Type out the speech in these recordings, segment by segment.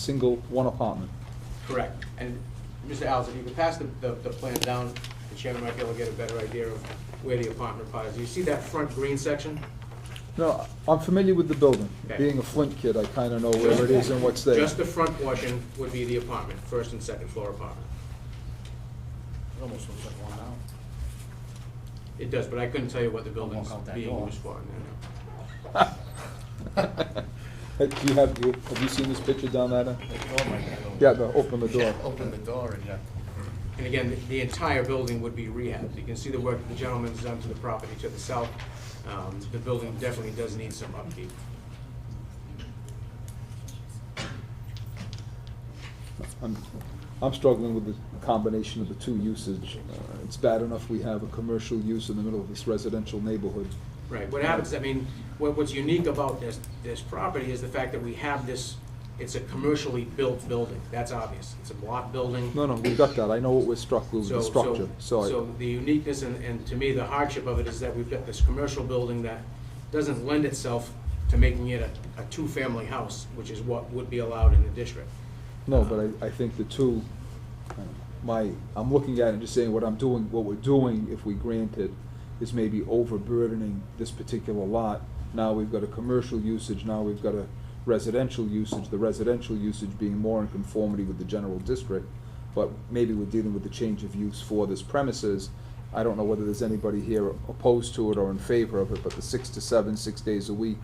single, one apartment. Correct. And Mr. Alves, if you could pass the, the, the plan down, the chairman might be able to get a better idea of where the apartment is. You see that front green section? No, I'm familiar with the building. Okay. Being a Flint kid, I kind of know where it is and what's there. Just the front portion would be the apartment, first and second floor apartment. It almost looks like one now. It does, but I couldn't tell you what the building's out that being door. used for. no, Hey, Do you have, do you- have you seen this picture down there? then? The door might be open. Yeah, no, open the door. Yeah, Open the door and, yeah. no. And again, the- the entire building would be rehabbed. You can see the work the gentleman's done to the property to the south. Um, The building definitely does need some upkeep. I'm, I'm struggling with the combination of the two usage. Uh, It's bad enough we have a commercial use in the middle of this residential neighborhood. Right, what happens, I mean, what, what's unique about this, this property is the fact that we have this, it's a commercially built building, that's obvious. It's a block building. No, no, we got that. I know what we're struck with, So- the structure, so I- So the uniqueness and, and to me, the hardship of it is that we've got this commercial building that doesn't lend itself to making it a, a two-family house, which is what would be allowed in the district. No, but I, I think the two, uh, my, I'm looking at it and just saying what I'm doing, what we're doing, if we grant it, is maybe overburdening this particular lot. Now we've got a commercial usage, now we've got a residential usage, the residential usage being more in conformity with the general district. But maybe we're dealing with the change of use for this premises. I don't know whether there's anybody here opposed to it or in favor of it, but the six to seven, six days a week.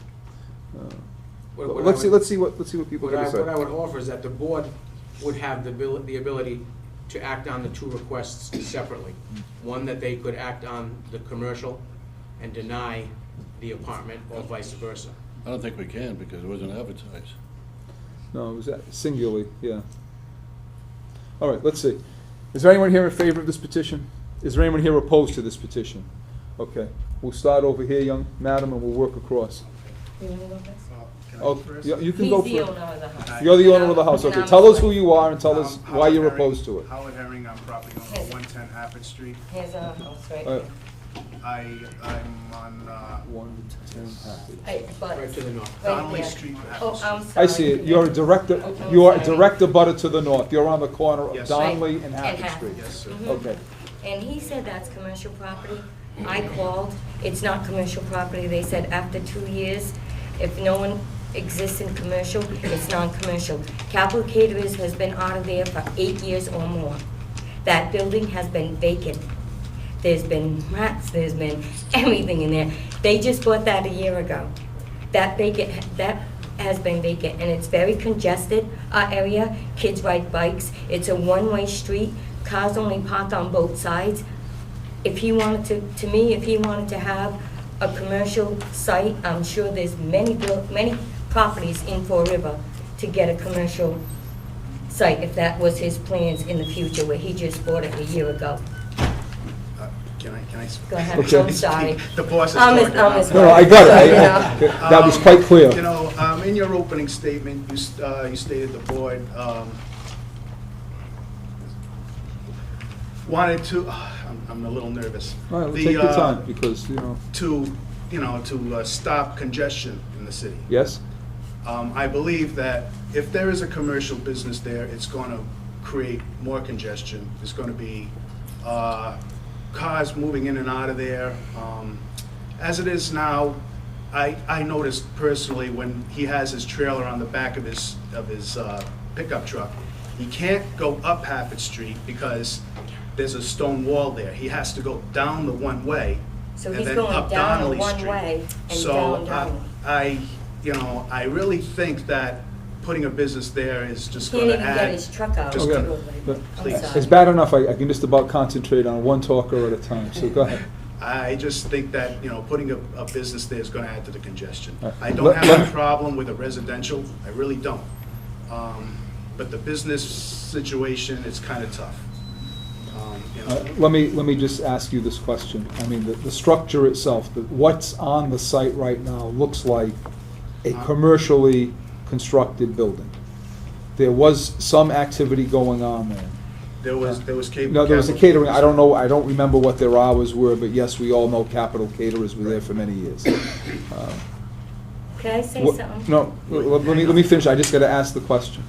uh, What- what I Let's see, would- let's see what, let's see what people What I, gotta say. what I would offer is that the board would have the abili- the ability to act on the two requests separately. One, that they could act on the commercial and deny the apartment, or vice versa. I don't think we can because it wasn't advertised. No, it was a- singularly, yeah. All right, let's see. Is there anyone here in favor of this petition? Is there anyone here opposed to this petition? Okay, we'll start over here, young madam, and we'll work across. You wanna go next? Oh, you you can He's go the first. owner of the house. You're the owner of the house, And okay. I'm Tell us the who one- you are and tell us Um, why Howard you're Herring- opposed to it. Howard Herring, I'm property owner, Yes. one ten Hafford Street. Here's our house right Uh, here. I, I'm on, uh, One, ten, happy. I, but, Right to the north. right Donnelly there. Street. and Hafford Oh, Street. I'm sorry. I see it. You're a director, Okay. you are a Sorry. director butter to the north. You're on the corner of Yes. Donnelly Right, and and Happy Hafford. Street. Yes, sir. Mhm. Okay. And he said that's commercial property. I called, it's not commercial property. They said after two years, if no one exists in commercial, it's non-commercial. Capital Caterers has been out of there for eight years or more. That building has been vacant. There's been rats, there's been everything in there. They just bought that a year ago. That vacant, that has been vacant, and it's very congested, our area. Kids ride bikes. It's a one-way street. Cars only park on both sides. If he wanted to, to me, if he wanted to have a commercial site, I'm sure there's many, buil- many properties in Fall River to get a commercial site, if that was his plans in the future, where he just bought it a year ago. Uh, Can I, can I? speak? Go ahead, Okay. I'm sorry. The boss is I'm talking. his- I'm his No, no, I got it. I- I- That was Um, quite clear. You know, um, in your opening statement, you, st- uh, you stated the board, um, wanted to, I'm, I'm a little nervous. All right, well, The, take your uh, time because, you know, To, you know, to uh, stop congestion in the city. yes? Um, I believe that if there is a commercial business there, it's going to create more congestion. There's going to be uh, cars moving in and out of there. Um, As it is now, I, I noticed personally when he has his trailer on the back of his, of his uh, pickup truck, he can't go up Hafford Street because there's a stone wall there. He has to go down the one-way So and he's then going up down Donnelly the one Street. way and down So uh, Donnelly. I, you know, I really think that putting a business there is just Can't gonna even get add. his truck out. just Okay. gonna- But I'm sorry. It's bad enough, I, I can just about concentrate on one talker at a time, so go ahead. I just think that, you know, putting a, a business there is gonna add to the congestion. All right. I Uh, Let- don't have let- a problem with a residential, I really don't. Um, But the business situation, it's kinda tough. Um, you Uh, know, Let me, let me just ask you this question. I mean, the, the structure itself, the- what's on the site right now looks like a commercially constructed building. There was some activity going on there. There was, there was catering. No, there was a catering, I don't know, I don't remember what their hours were, but yes, we all know Capital Caterers were there for many years. Um, Could I say What- something? No, l- l- let me, let me finish, I just gotta ask the question.